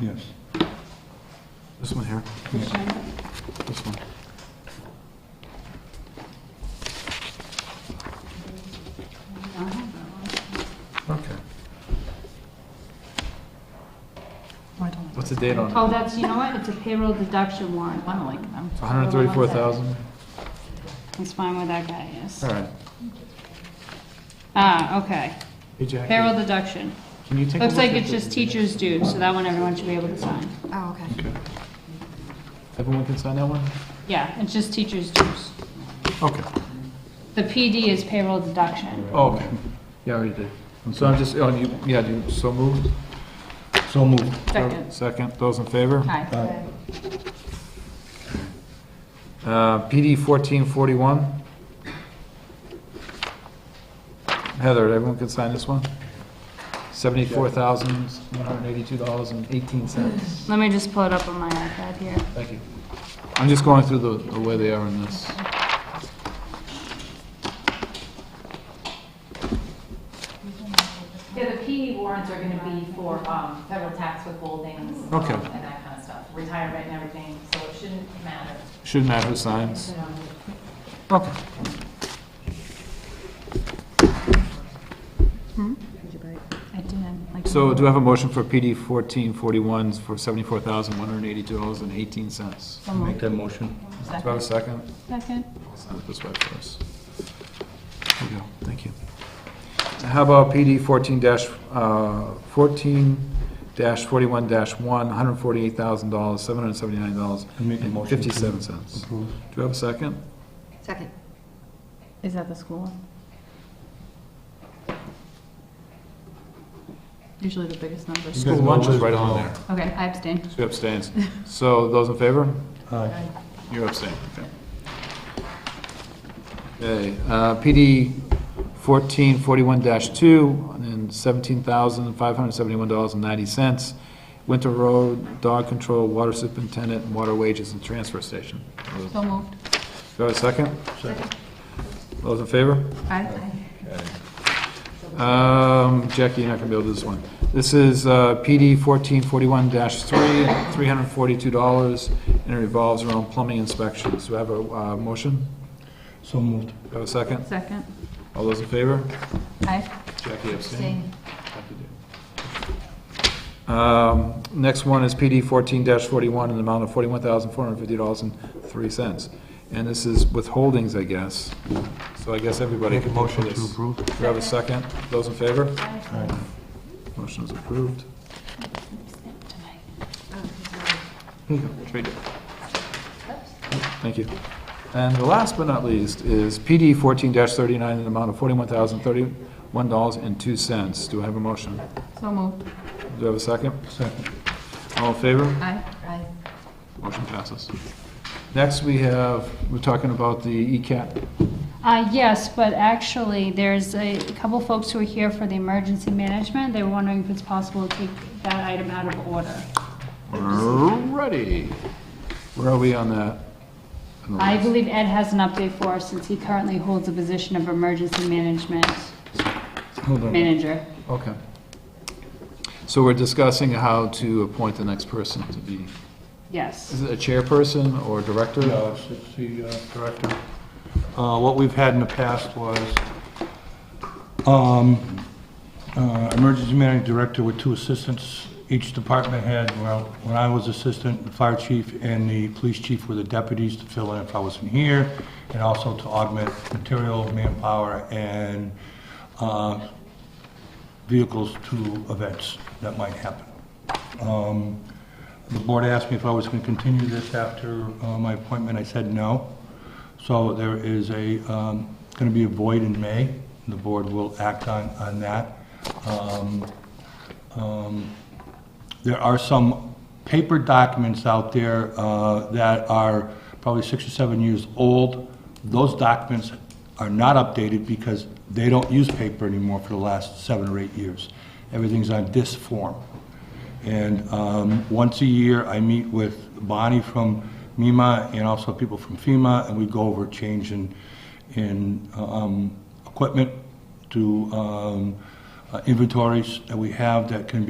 Yes. This one here, this one. Okay. What's the date on it? Oh, that's, you know what, it's a payroll deduction warrant, I don't like them. It's 134,000? It's fine with that guy, yes. All right. Ah, okay, Hey, Jackie, payroll deduction. Can you take a Looks look like at it's the- just teachers' dues, so that one everyone should be able to sign. Oh, okay. Everyone can sign that one? Yeah, it's just teachers' dues. Okay. The PD is payroll deduction. Oh, okay. Yeah, I already did. So I'm just, oh, you, yeah, do you, so moved? So moved. Second. Second, those in favor? Aye. Uh, PD 1441. Heather, everyone can sign this one? $74,182.18. Let me just pull it up on my iPad here. Thank you. I'm just going through the, the way they are in this. Yeah, the PE warrants are gonna be for um, federal tax withholdings. um, Okay. And that kind of stuff, retirement and everything, so it shouldn't matter. Shouldn't matter who signs. you know. Okay. I didn't, like. So do I have a motion for PD 1441 for $74,182.18? So Make moved. that motion. Do I have a second? Second. Sign it this way for us. There you go, thank you. How about PD fourteen dash, uh, fourteen dash forty-one dash one, hundred and forty-eight thousand dollars, seven hundred and seventy-nine dollars I make a and motion to fifty-seven cents. Do Approve. you have a second? Second. Is that the school one? Usually the biggest numbers. guys School lunch is know right Liz? on there. Okay, I abstain. She abstains. So those in favor? Aye. You abstain, okay. Okay, uh, PD fourteen forty-one two, and seventeen thousand, five hundred seventy-one dollars and ninety cents. Winter Road Dog Control Water Superintendent and Water Wages and Transfer Station. Do So moved. I have a second? Those in favor? Aye. Um, Jackie, you're not gonna be able to do this one. This is uh, PD fourteen forty-one three, three hundred forty-two dollars, and it revolves around plumbing inspections. Do I have a uh, motion? So moved. Do I have a second? Second. All those in favor? Aye. Jackie abstain. Um, Next one is PD fourteen forty-one in the amount of forty-one thousand, four hundred and fifty dollars and three cents. And this is withholdings, I guess. So I guess everybody Make a can vote for motion to this. approve. Do I have a second? Those in favor? Aye. Motion is approved. Trade it. Thank you. And the last but not least is PD fourteen thirty-nine in the amount of forty-one thousand, thirty-one dollars and two cents. Do I have a motion? So moved. Do I have a second? Second. All in favor? Aye. Aye. Motion passes. Next, we have, we're talking about the E ECAT. Uh, yes, but actually, there's a couple folks who are here for the emergency management. They were wondering if it's possible to take that item out of order. Ready. Where are we on that? On the I list? believe Ed has an update for us since he currently holds the position of emergency management Hold on. manager. Okay. So we're discussing how to appoint the next person to be, Yes. is it a chairperson or director? Yeah, it's- it's the uh, director. Uh, What we've had in the past was um, uh, emergency management director with two assistants. Each department had, well, when I was assistant, the fire chief and the police chief were the deputies to fill in if I wasn't here, and also to augment material, manpower, and uh, vehicles to events that might happen. Um, The board asked me if I was going to continue this after uh, my appointment. I said no. So there is a, going to be a void in May. The board will act on, on that. Um, um, There are some paper documents out there uh, that are probably six or seven years old. Those documents are not updated because they don't use paper anymore for the last seven or eight years. Everything's on disk form. And um, once a year, I meet with Bonnie from MEMA and also people from FEMA, and we go over change in, in um, equipment to um, uh, inventories that we have that can be.